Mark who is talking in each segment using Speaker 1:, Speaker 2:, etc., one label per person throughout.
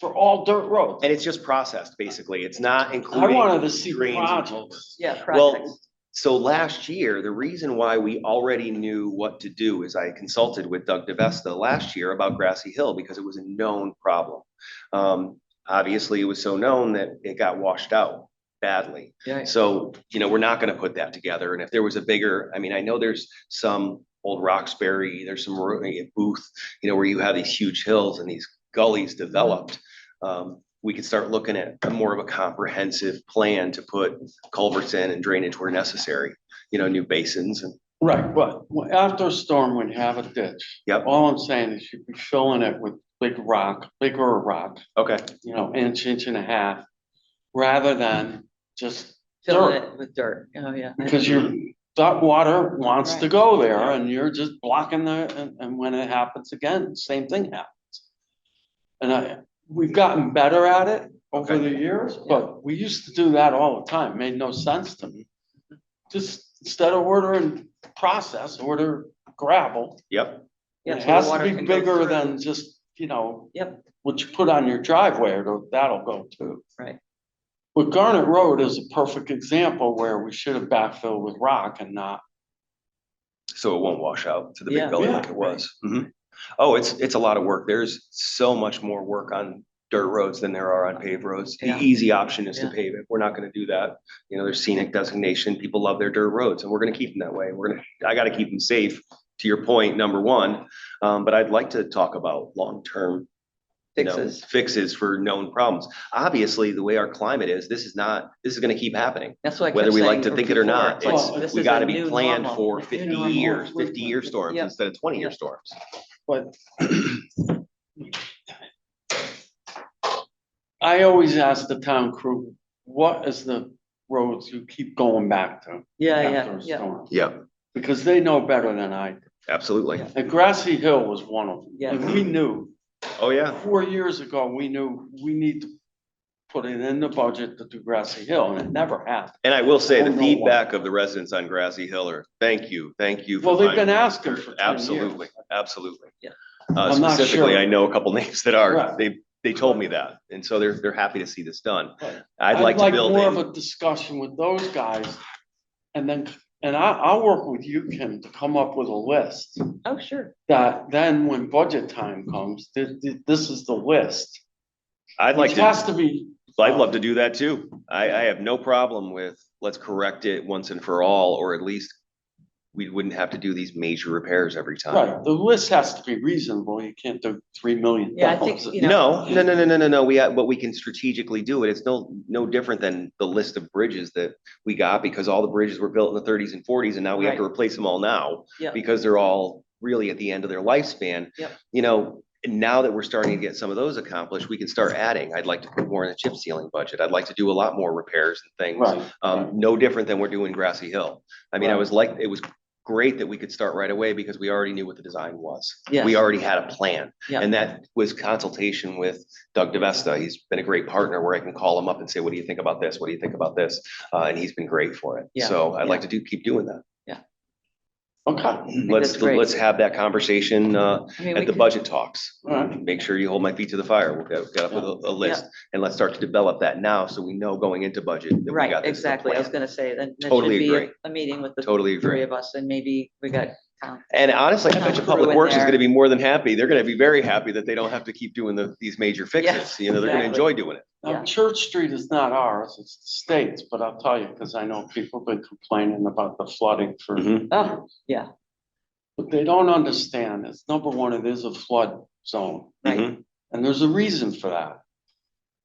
Speaker 1: for all dirt roads.
Speaker 2: And it's just processed, basically. It's not
Speaker 1: I
Speaker 2: including.
Speaker 1: wanted to see
Speaker 2: drains and
Speaker 1: projects.
Speaker 3: Yeah, projects.
Speaker 2: Well, so last year, the reason why we already knew what to do is I consulted with Doug DeVesta last year about Grassy Hill because it was a known problem. Um, obviously, it was so known that it got washed out badly.
Speaker 1: Yeah.
Speaker 2: So, you know, we're not gonna put that together. And if there was a bigger, I mean, I know there's some old Roxbury, there's some ro- eh, Booth, you know, where you have these huge hills and these gullies developed. Um, we could start looking at more of a comprehensive plan to put culverts in and drainage where necessary, you know, new basins and,
Speaker 1: Right, but after a storm, we have a ditch.
Speaker 2: Yep.
Speaker 1: All I'm saying is you'd be filling it with big rock, bigger rock,
Speaker 2: okay,
Speaker 1: you know, inch, inch and a half, rather than just
Speaker 3: Fill
Speaker 1: dirt.
Speaker 3: it with dirt. Oh, yeah.
Speaker 1: Because your, that water wants to
Speaker 3: Right.
Speaker 1: go there and you're just blocking the, and, and when it happens again, same thing happens. And I, we've gotten better at it over the years, but we used to do that all the time, made no sense to me. Just instead of ordering process, order gravel.
Speaker 2: yep,
Speaker 3: Yeah,
Speaker 1: It
Speaker 3: so the
Speaker 1: has to
Speaker 3: water
Speaker 1: be
Speaker 3: can go
Speaker 1: bigger
Speaker 3: through.
Speaker 1: than just, you know.
Speaker 3: Yep.
Speaker 1: What you put on your driveway, it'll- that'll go too.
Speaker 3: Right.
Speaker 1: But Garnet Road is a perfect example where we should have backfilled with rock and not
Speaker 2: so it won't wash out to the big
Speaker 3: Yeah.
Speaker 2: gully like it was. Mhm. Oh, it's, it's a lot of work. There's so much more work on dirt roads than there are on paved roads. The
Speaker 3: Yeah.
Speaker 2: easy option is to
Speaker 3: Yeah.
Speaker 2: pave it. We're not gonna do that. You know, there's scenic designation. People love their dirt roads and we're gonna keep them that way. We're gonna, I gotta keep them safe, to your point, number one. Um, but I'd like to talk about long-term you know,
Speaker 3: Fixes.
Speaker 2: Fixes for known problems. Obviously, the way our climate is, this is not, this is gonna keep happening.
Speaker 3: That's what I kept
Speaker 2: Whether we like
Speaker 3: saying
Speaker 2: to
Speaker 3: from
Speaker 2: think it or
Speaker 3: before.
Speaker 2: not,
Speaker 3: like,
Speaker 1: it's-
Speaker 3: this
Speaker 2: We
Speaker 3: is a
Speaker 2: gotta be
Speaker 3: new
Speaker 2: planned
Speaker 3: normal.
Speaker 2: for
Speaker 1: New
Speaker 2: fifty
Speaker 1: normal.
Speaker 2: years, fifty-year storms
Speaker 3: Yeah.
Speaker 2: instead of twenty-year
Speaker 3: Yeah.
Speaker 2: storms.
Speaker 1: But I always ask the town crew, what is the roads you keep going back to
Speaker 3: Uh, Yeah,
Speaker 1: after
Speaker 3: yeah,
Speaker 1: a
Speaker 3: yeah,
Speaker 1: storm?
Speaker 2: Yep,
Speaker 1: Because they know better than I. do.
Speaker 2: absolutely.
Speaker 3: Yeah.
Speaker 1: And Grassy Hill was one of them.
Speaker 3: Yeah.
Speaker 1: And we knew,
Speaker 2: Oh, yeah.
Speaker 1: four years ago, we knew we need to put it in the budget to do Grassy Hill and it never happened.
Speaker 2: And I will say,
Speaker 1: Oh,
Speaker 2: the
Speaker 1: no.
Speaker 2: feedback of the residents on Grassy Hill are, thank you, thank you. for
Speaker 1: Well, they've been
Speaker 2: finding-"
Speaker 1: asking for 10 years.
Speaker 2: Absolutely, absolutely.
Speaker 3: Yeah.
Speaker 2: Uh,
Speaker 1: I'm not
Speaker 2: specifically,
Speaker 1: sure.
Speaker 2: I know a couple names that are,
Speaker 1: Right.
Speaker 2: they, they told me that, and so they're, they're happy to see this done.
Speaker 1: Right.
Speaker 2: I'd like to build
Speaker 1: More
Speaker 2: in.
Speaker 1: of a discussion with those guys. And then, and I, I'll work with you, Kim, to come up with a list
Speaker 3: oh, sure,
Speaker 1: that then when budget time comes, this, this is the list.
Speaker 2: I'd like
Speaker 1: Which
Speaker 2: to.
Speaker 1: has to be,
Speaker 2: Well, I'd love to do that too. I, I have no problem with, let's correct it once and for all, or at least we wouldn't have to do these major repairs every time.
Speaker 1: right, the list has to be reasonable. You can't do three million
Speaker 3: Yeah, I think,
Speaker 1: dollars.
Speaker 3: you
Speaker 2: No, no, no, no, no, no, no. We, uh, but we can strategically do it. It's no, no different than the list of bridges that we got because all the bridges were built in the thirties and forties and now we have to replace them all now.
Speaker 3: Yeah.
Speaker 2: Because they're all really at the end of their lifespan.
Speaker 3: Yep.
Speaker 2: You know, now that we're starting to get some of those accomplished, we can start adding. I'd like to put more in the chip sealing budget. I'd like to do a lot more repairs and things.
Speaker 1: Right.
Speaker 2: Um, no different than we're doing Grassy Hill. I mean, I
Speaker 1: Right.
Speaker 2: was like, it was great that we could start right away because we already knew what the design was.
Speaker 3: Yes.
Speaker 2: We already had a plan.
Speaker 3: Yeah.
Speaker 2: And that was consultation with Doug DeVesta. He's been a great partner where I can call him up and say, what do you think about this? What do you think about this? Uh, and he's been great for it.
Speaker 3: Yeah.
Speaker 2: So I'd like to do, keep doing that.
Speaker 1: Okay.
Speaker 2: Let's,
Speaker 3: that's great.
Speaker 2: let's have that conversation, uh,
Speaker 3: I mean, we
Speaker 2: at the
Speaker 3: could-
Speaker 2: budget talks.
Speaker 1: Alright.
Speaker 2: Make sure you hold my feet to the fire. We'll get, get up with a, a list and let's start to develop that now. So we know going into budget. that we got
Speaker 3: Right,
Speaker 2: this in the
Speaker 3: exactly, I
Speaker 2: plan.
Speaker 3: was gonna say, then that should
Speaker 2: Totally
Speaker 3: be a-
Speaker 2: agree.
Speaker 3: a meeting with the
Speaker 2: Totally agree.
Speaker 3: three of us, and maybe we got town
Speaker 2: And honestly, I bet you
Speaker 3: Town
Speaker 2: Public
Speaker 3: crew in
Speaker 2: Works is
Speaker 3: there.
Speaker 2: gonna be more than happy. They're gonna be very happy that they don't have to keep doing the, these major fixes. You know, they're gonna
Speaker 3: exactly.
Speaker 2: enjoy doing it.
Speaker 1: Now,
Speaker 3: Yeah.
Speaker 1: Church Street is not ours, it's the state's, but I'll tell you, because I know people have been complaining about the flooding for
Speaker 2: Mhm.
Speaker 3: Oh, yeah.
Speaker 1: What they don't understand is, number one, it is a flood zone,
Speaker 3: Right.
Speaker 2: Mhm.
Speaker 1: and there's a reason for that.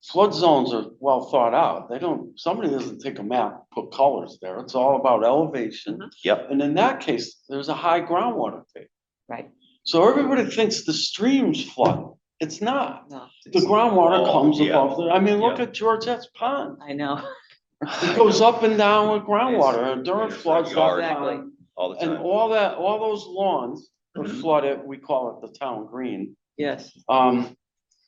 Speaker 1: Flood zones are well thought out. They don't, somebody doesn't take a map, put colors there. It's all about elevation.
Speaker 3: Mm-hmm.
Speaker 2: Yep.
Speaker 1: And in that case, there's a high groundwater table.
Speaker 3: Right.
Speaker 1: So everybody thinks the streams flood. It's not.
Speaker 3: no,
Speaker 1: The groundwater
Speaker 2: Oh,
Speaker 1: comes
Speaker 2: yeah.
Speaker 1: above the, I mean, look
Speaker 2: Yeah.
Speaker 1: at Georgette's Pond.
Speaker 3: I know,
Speaker 1: It goes up and down with groundwater and during
Speaker 2: It's like
Speaker 1: floods.
Speaker 2: yard.
Speaker 1: that's
Speaker 3: Exactly.
Speaker 1: fine.
Speaker 2: All the
Speaker 1: And
Speaker 2: time.
Speaker 1: all that, all those lawns are
Speaker 2: Mhm.
Speaker 1: flooded, we call it the town green.
Speaker 3: yes,
Speaker 1: Um,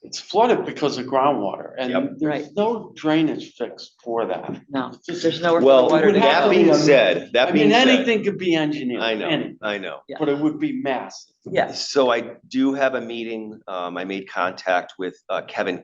Speaker 1: it's flooded because of groundwater
Speaker 2: Yep.
Speaker 1: and
Speaker 3: Right.
Speaker 1: there's no drainage fix for that.
Speaker 3: no,
Speaker 1: It's just-
Speaker 3: there's nowhere. for the
Speaker 2: Well,
Speaker 3: water to
Speaker 1: would have
Speaker 2: that
Speaker 1: to
Speaker 3: go.
Speaker 1: be
Speaker 2: being
Speaker 1: a-
Speaker 2: said,
Speaker 1: I
Speaker 2: that being
Speaker 1: mean,
Speaker 2: said,
Speaker 1: anything could be engineered.
Speaker 2: I know,
Speaker 1: anything,
Speaker 2: I know.
Speaker 3: Yeah.
Speaker 1: But it would be massive.
Speaker 3: Yes,
Speaker 2: So I do have a meeting. Um, I made contact with, uh, Kevin